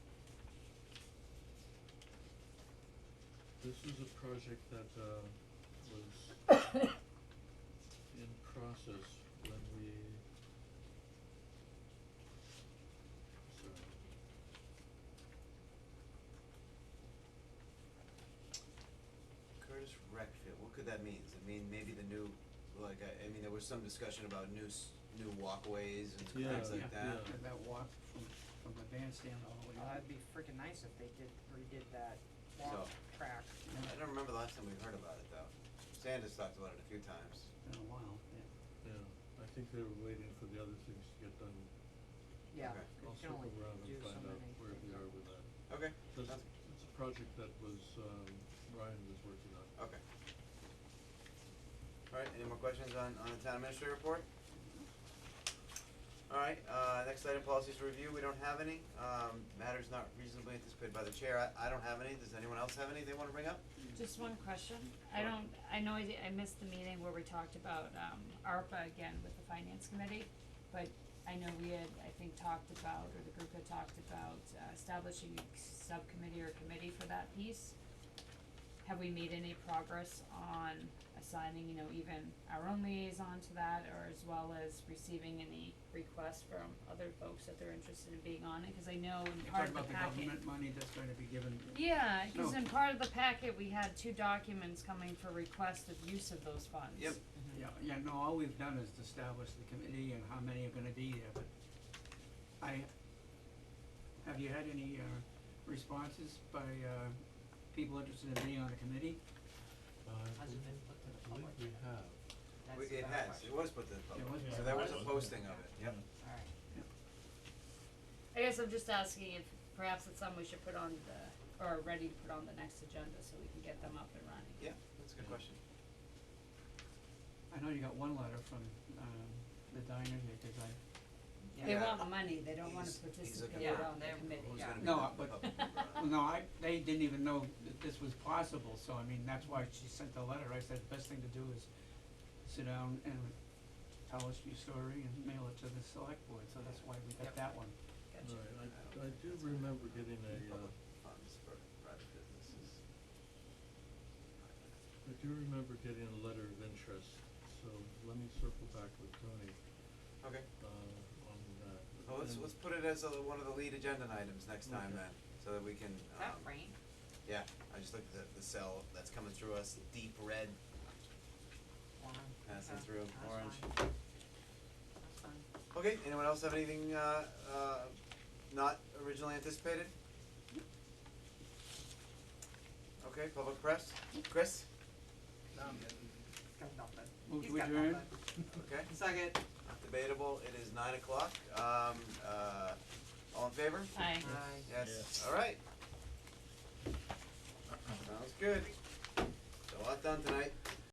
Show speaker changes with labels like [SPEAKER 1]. [SPEAKER 1] This is a project that uh was in process when we sorry.
[SPEAKER 2] Curtis Recfield, what could that mean? Does it mean maybe the new, like, I, I mean, there was some discussion about new s- new walkways and
[SPEAKER 1] Yeah,
[SPEAKER 2] things like
[SPEAKER 1] yeah.
[SPEAKER 2] that.
[SPEAKER 3] And that walk from, from the bandstand all the way up.
[SPEAKER 4] Uh, it'd be freaking nice if they did, redid that
[SPEAKER 2] So-
[SPEAKER 4] walk track.
[SPEAKER 2] I don't remember the last time we heard about it though. Sanders talked about it a few times.
[SPEAKER 3] Been a while, yeah.
[SPEAKER 1] Yeah, I think they were waiting for the other things to get done.
[SPEAKER 4] Yeah,
[SPEAKER 2] Okay.
[SPEAKER 4] you
[SPEAKER 1] I'll
[SPEAKER 4] can
[SPEAKER 1] circle
[SPEAKER 4] only
[SPEAKER 1] around
[SPEAKER 4] do
[SPEAKER 1] and
[SPEAKER 4] so
[SPEAKER 1] find
[SPEAKER 4] many
[SPEAKER 1] out where we
[SPEAKER 4] things.
[SPEAKER 1] are with that.
[SPEAKER 2] Okay,
[SPEAKER 1] This
[SPEAKER 2] that's,
[SPEAKER 1] it's a project that was um Ryan was working on.
[SPEAKER 2] okay. Alright, any more questions on, on the town administrator report? Alright, uh, next item, policies to review, we don't have any, um, matters not reasonably anticipated by the chair, I, I don't have any, does anyone else have any they wanna bring up?
[SPEAKER 5] Just one question, I don't, I know I, di- I missed the meeting where we talked about, um, ARPA again with the finance committee, but I know we had, I think, talked about, or the group had talked about uh, establishing a subcommittee or committee for that piece. Have we made any progress on assigning, you know, even our own liaison to that, or as well as receiving any requests from other folks that they're interested in being on it, cause I know in
[SPEAKER 3] You're talking
[SPEAKER 5] part of the
[SPEAKER 3] about the
[SPEAKER 5] packet.
[SPEAKER 3] government money that's going to be given,
[SPEAKER 5] Yeah, cause
[SPEAKER 3] No.
[SPEAKER 5] in part of the packet, we had two documents coming for request of use of those funds.
[SPEAKER 2] Yep.
[SPEAKER 1] Mm-hmm.
[SPEAKER 3] yeah, yeah, no, all we've done is establish the committee and how many are gonna be there, but I, have you had any, uh, responses by, uh, people interested in being on the committee?
[SPEAKER 1] Uh, I
[SPEAKER 4] Hasn't been put to the
[SPEAKER 1] believe
[SPEAKER 4] public.
[SPEAKER 1] we have.
[SPEAKER 4] That's
[SPEAKER 2] We-
[SPEAKER 4] the
[SPEAKER 2] It
[SPEAKER 4] better
[SPEAKER 2] has,
[SPEAKER 4] question.
[SPEAKER 2] it was put to the public,
[SPEAKER 3] was
[SPEAKER 2] so
[SPEAKER 3] put
[SPEAKER 2] there
[SPEAKER 3] to
[SPEAKER 2] was
[SPEAKER 3] the
[SPEAKER 2] a
[SPEAKER 3] public.
[SPEAKER 2] posting of it, yep.
[SPEAKER 4] Alright,
[SPEAKER 5] I guess I'm just asking if perhaps it's something we should put on the, or ready to put on the next agenda so we can get them up and running.
[SPEAKER 2] Yeah, that's a good
[SPEAKER 1] Yeah.
[SPEAKER 2] question.
[SPEAKER 3] I know you got one letter from, um, the diner here, cause I,
[SPEAKER 5] They
[SPEAKER 2] Yeah.
[SPEAKER 5] want the money, they don't wanna
[SPEAKER 2] He's- he's looking
[SPEAKER 5] participate
[SPEAKER 4] for
[SPEAKER 5] on the
[SPEAKER 4] Yeah,
[SPEAKER 5] committee.
[SPEAKER 2] Who's
[SPEAKER 4] Yeah.
[SPEAKER 2] gonna be
[SPEAKER 3] No,
[SPEAKER 2] the
[SPEAKER 3] uh, but-
[SPEAKER 2] public member on it?
[SPEAKER 3] Well, no, I, they didn't even know that this was possible, so I mean, that's why she sent the letter, I said, best thing to do is sit down and tell us your story and mail it to the select board, so that's why we got that one.
[SPEAKER 4] gotcha.
[SPEAKER 1] Right, I I do remember getting a uh
[SPEAKER 2] Public funds for private businesses.
[SPEAKER 1] I do remember getting a letter of interest, so let me circle back with Tony,
[SPEAKER 2] Okay,
[SPEAKER 1] uh, on that.
[SPEAKER 2] well, Oh, let's,
[SPEAKER 1] And-
[SPEAKER 2] let's put it as a, one of the lead agenda items next time
[SPEAKER 1] Okay.
[SPEAKER 2] then, so that we can,
[SPEAKER 4] Is that
[SPEAKER 2] um,
[SPEAKER 4] rain?
[SPEAKER 2] yeah, I just looked at the, the cell that's coming through us, deep red,
[SPEAKER 4] Wow.
[SPEAKER 2] passing
[SPEAKER 4] Okay.
[SPEAKER 2] through,
[SPEAKER 4] That's
[SPEAKER 2] orange.
[SPEAKER 4] fine. That's fine.
[SPEAKER 2] Okay, anyone else have anything, uh, uh, not originally anticipated? Okay, public press, Chris,
[SPEAKER 4] Got nothing.
[SPEAKER 3] Move
[SPEAKER 4] He's
[SPEAKER 3] to
[SPEAKER 4] got
[SPEAKER 3] adjourn?
[SPEAKER 4] nothing.
[SPEAKER 2] okay,
[SPEAKER 4] Second.
[SPEAKER 2] debatable, it is nine o'clock, um, uh, all in favor?
[SPEAKER 5] Aye.
[SPEAKER 4] Aye.
[SPEAKER 2] Yes, alright. Sounds good. So a lot done tonight.